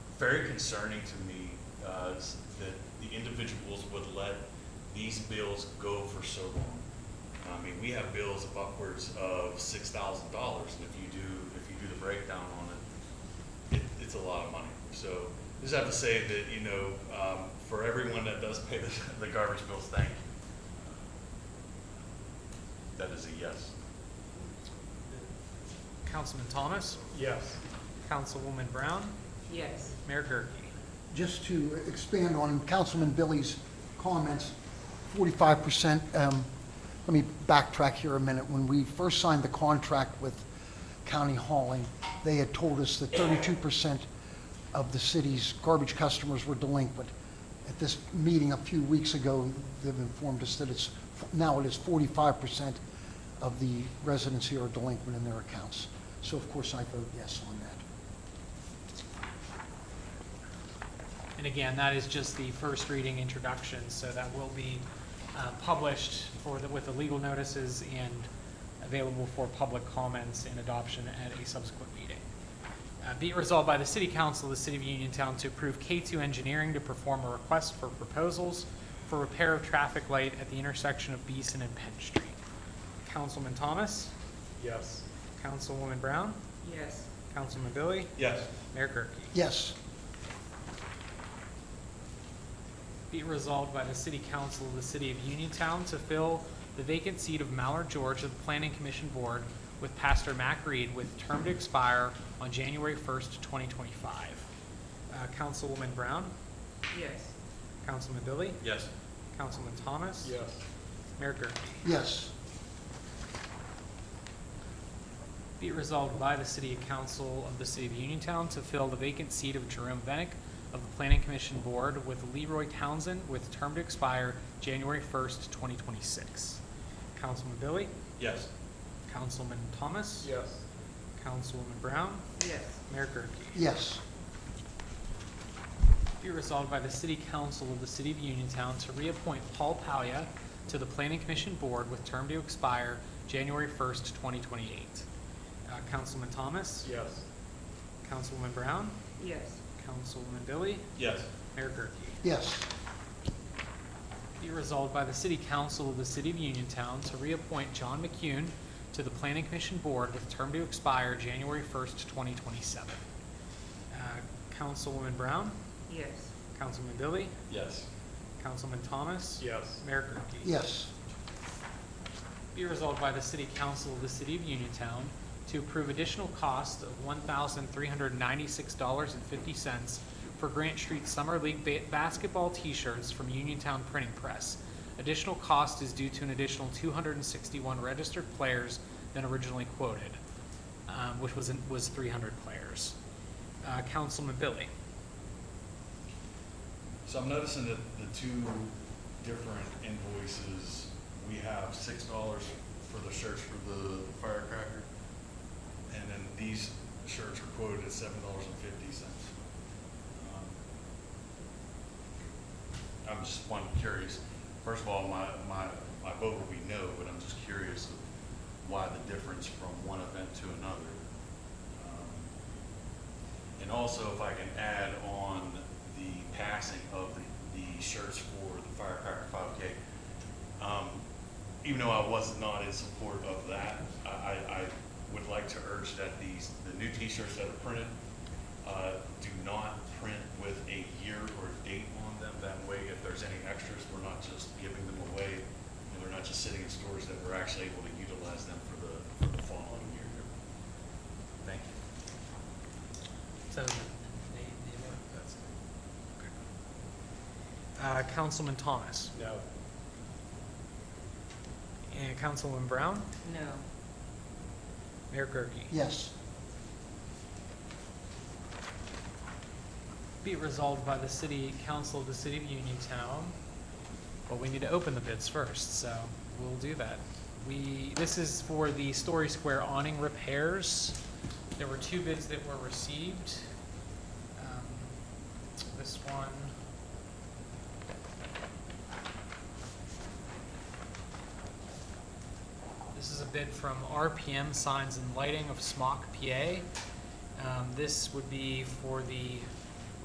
very concerning to me uh, s- that the individuals would let these bills go for so long. I mean, we have bills of upwards of six thousand dollars, and if you do, if you do the breakdown on it, it, it's a lot of money. So just have to say that, you know, um, for everyone that does pay the, the garbage bills, thank you. That is a yes. Councilman Thomas, Yes. Councilwoman Brown, Yes. Mayor Gurke. Just to expand on Councilman Billy's comments, forty-five percent, um, let me backtrack here a minute. When we first signed the contract with County Hauling, they had told us that thirty-two percent of the city's garbage customers were delinquent. At this meeting a few weeks ago, they've informed us that it's, now it is forty-five percent of the residents here are delinquent in their accounts. So of course, I vote yes on that. And again, that is just the first reading introduction, so that will be uh, published for, the- with the legal notices and available for public comments and adoption at a subsequent meeting. Uh, Be it resolved by the City Council of the City of Uniontown to approve K2 Engineering to perform a request for proposals for repair of traffic light at the intersection of Beeson and Penn Street. Councilman Thomas, Yes. Councilwoman Brown, Yes. Councilman Billy, Yes. Mayor Gurke. Yes, Be it resolved by the City Council of the City of Uniontown to fill the vacant seat of Mallard George of the Planning Commission Board with Pastor Mac Reed with term to expire on January 1st, 2025. Uh, Councilwoman Brown, Yes. Councilman Billy, Yes. Councilman Thomas. Yes. Mayor Gurke. yes. Be it resolved by the City Council of the City of Uniontown to fill the vacant seat of Jerome Venick of the Planning Commission Board with Leroy Townsend with term to expire January 1st, 2026. Councilman Billy, Yes. Councilman Thomas. Yes. Councilwoman Brown. Yes. Mayor Gurke. Yes, Be resolved by the City Council of the City of Uniontown to reappoint Paul Palia to the Planning Commission Board with term to expire January 1st, 2028. Uh, Councilman Thomas. Yes. Councilwoman Brown. Yes. Councilwoman Billy. Yes. Mayor Gurke. yes, Be resolved by the City Council of the City of Uniontown to reappoint John McCune to the Planning Commission Board with term to expire January 1st, 2027. Uh, Councilwoman Brown. Yes. Councilman Billy. Yes. Councilman Thomas. Yes. Mayor Gurke. yes, Be resolved by the City Council of the City of Uniontown to approve additional cost of one thousand three hundred ninety-six dollars and fifty cents for Grant Street Summer League ba- basketball T-shirts from Uniontown Printing Press. Additional cost is due to an additional two hundred and sixty-one registered players than originally quoted, um, which was, in- was three hundred players. Uh, Councilman Billy. So I'm noticing that the two different invoices, we have six dollars for the shirts for the firecracker, and then these shirts are quoted at seven dollars and fifty cents. Um, I'm just one curious, first of all, my, my, my vote will be no, but I'm just curious of why the difference from one event to another. Um, and also, if I can add on the passing of the, the shirts for the firecracker five K. Um, even though I was not in support of that, I, I, I would like to urge that these, the new t-shirts that are printed, uh, do not print with a year or date on them. That way, if there's any extras, we're not just giving them away, and they're not just sitting in stores, that we're actually able to utilize them for the, for the following year. Thank you. So, Uh, Councilman Thomas. No. And Councilwoman Brown, No. Mayor Gurke. yes, Be it resolved by the City Council of the City of Uniontown, but we need to open the bids first, so we'll do that. We, this is for the Story Square awning repairs. There were two bids that were received. Um, This one. This is a bid from RPM Signs and Lighting of Smock, PA. Um, This would be for the